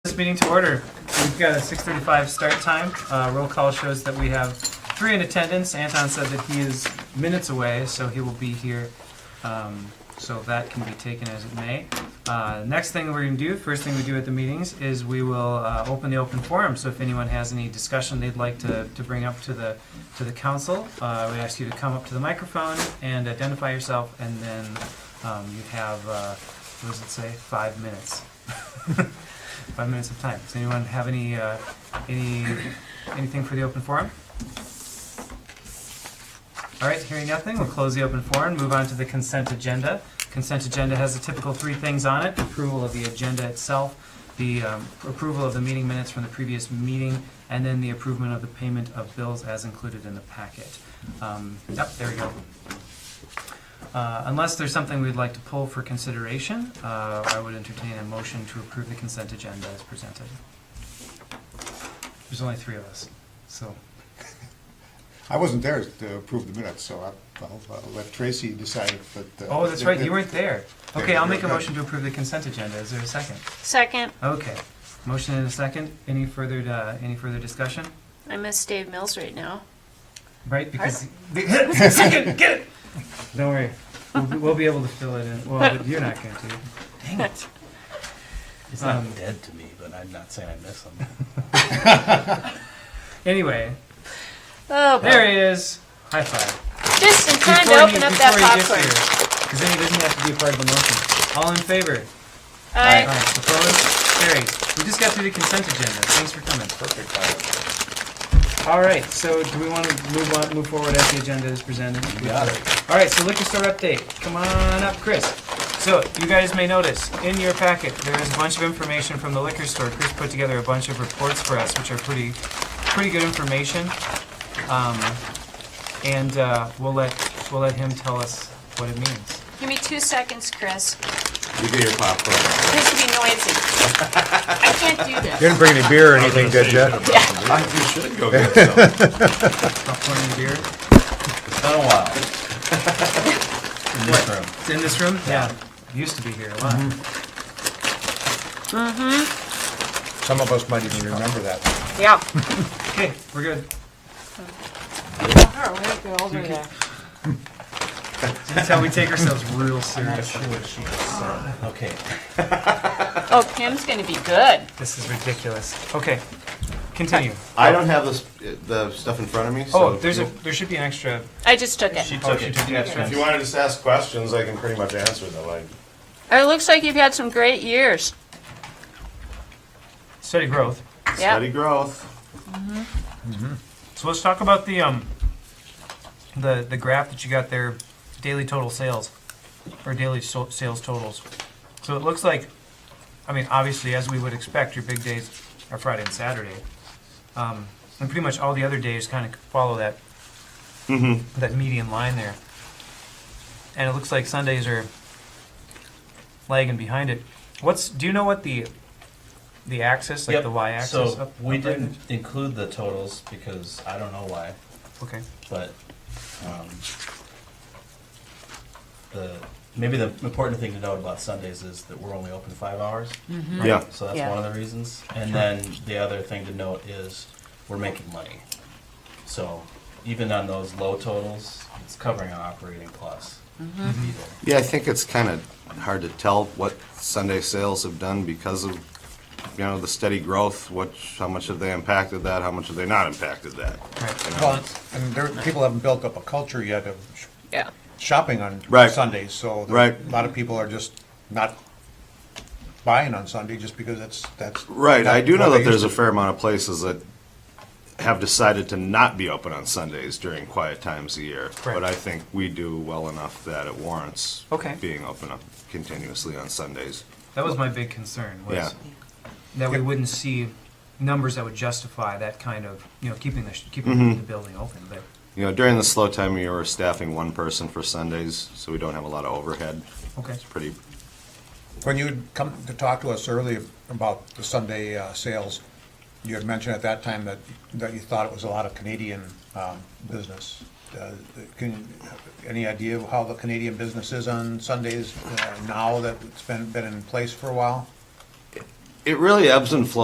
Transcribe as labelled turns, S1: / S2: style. S1: meeting to order. We've got a 6:35 start time. Uh, Roll call shows that we have three in attendance. Anton said that he is minutes away, so he will be here. Um, So that can be taken as it may. Uh, Next thing we're going to do, first thing we do at the meetings, is we will uh, open the open forum. So if anyone has any discussion they'd like to to bring up to the, to the council, uh, we ask you to come up to the microphone and identify yourself, and then um, you have, uh, what does it say, five minutes? Five minutes of time. Does anyone have any, uh, any, anything for the open forum? All right, hearing nothing, we'll close the open forum, move on to the consent agenda. Consent agenda has the typical three things on it, approval of the agenda itself, the um, approval of the meeting minutes from the previous meeting, and then the approval of the payment of bills as included in the packet. Um, Yep, there we go. Uh, Unless there's something we'd like to pull for consideration, uh, I would entertain a motion to approve the consent agenda as presented. There's only three of us, so.
S2: I wasn't there to approve the minutes, so I- I'll, I'll let Tracy decide, but. uh,
S1: Oh, that's right, you weren't there. Okay, I'll make a
S2: Yeah.
S1: motion to approve the consent agenda. Is there a second?
S3: Second,
S1: Okay. Motion and a second. Any further, uh, any further discussion?
S3: I miss Dave Mills right now.
S1: Right, because. Second, get it! Don't worry. We'll, be- we'll be able to fill it in. Well, but you're not going to.
S4: Dang it. He's not
S1: Um,
S4: dead to me, but I'm not saying I miss him.
S1: Anyway,
S3: Oh,
S1: there he is. High five.
S3: just in time
S1: Before he-
S3: to open up that
S1: before he gets
S3: popcorn.
S1: here, Because then he doesn't have to be a part of the motion. All in favor?
S3: I,
S1: Aye. Opposed? Carried. We just got through the consent agenda. Thanks for coming.
S2: Perfect.
S1: All right, so do we want to move on, move forward as the agenda is presented?
S4: You got it.
S1: All right, so liquor store update. Come on up, Chris. So you guys may notice in your packet there is a bunch of information from the liquor store. Chris put together a bunch of reports for us, which are pretty, pretty good information. Um, and uh, we'll let we'll let him tell us what it means.
S3: give me two seconds, Chris.
S5: You get your popcorn.
S3: This would be noisy. I can't do this.
S6: You didn't bring any beer or anything, did you?
S5: I think you should go get some.
S1: Popcorn and beer.
S4: It's been a while. In this room.
S1: It's in this room. Yeah, it used to be here a lot.
S6: Some of us might even remember that.
S3: Yeah.
S1: Okay, we're good. That's how we take ourselves real serious.
S4: Okay.
S3: Oh, Pam's gonna be good.
S1: This is ridiculous. Okay, continue.
S5: I don't have the, s- the stuff in front of me, so.
S1: Oh, there's a,
S5: if
S1: there should be an extra.
S3: I just took it.
S5: you-
S1: Oh, she took the extra.
S5: If you wanted to just ask questions, I can pretty much answer them, like,
S3: It looks like you've had some great years.
S1: Steady growth.
S3: Yeah.
S5: steady growth.
S1: So let's talk about the, um, the, the graph that you got there, daily total sales, or daily so- sales totals. So it looks like, I mean, obviously, as we would expect, your big days are Friday and Saturday. Um, and pretty much all the other days kind of follow that,
S4: Mm-hmm.
S1: that median line there. And it looks like Sundays are lagging behind it. What's, do you know what the, the axis, like
S4: Yep,
S1: the y-axis? up-
S4: So we
S1: up right
S4: didn't include the totals because I don't know why,
S1: is? Okay.
S4: but, um, the, maybe the important thing to note about Sundays is that we're only open five hours.
S7: Mm-hmm.
S5: Yeah.
S4: So that's
S3: Yeah.
S4: one of the reasons. And then the other thing to note is we're making money. So even on those low totals, it's covering our operating plus. Either.
S7: Yeah, I think it's kind of hard to tell what Sunday sales have done because of, you know, the steady growth, what, how much have they impacted that, how much have they not impacted that?
S1: Right.
S7: you know?
S6: Well, and there, people haven't built up a culture yet of sh-
S3: Yeah.
S6: shopping on
S7: Right.
S6: Sundays, so. there-
S7: Right.
S6: A lot of people are just not buying on Sunday just because that's, that's.
S7: Right, I
S6: not
S7: do
S6: what
S7: know that
S6: they
S7: there's a
S6: used
S7: fair amount of places that have decided to not be open on Sundays during quiet times of year.
S1: Correct.
S7: But I think we do well enough that it warrants
S1: Okay.
S7: being open up continuously on Sundays.
S1: That was my big concern was
S7: Yeah.
S1: that we wouldn't see numbers that would justify that kind of you know keeping the keeping the building open. But
S7: You know, during the slow time of year, we're staffing one person for Sundays, so we don't have a lot of overhead.
S1: okay,
S7: It's pretty
S6: to- When you come to talk to us earlier about the Sunday uh, sales, you had mentioned at that time that, that you thought it was a lot of Canadian um, business. Uh, Can, any idea of how the Canadian business is on Sundays uh, now that it's been, been in place for a while?
S7: It really ebbs and flows.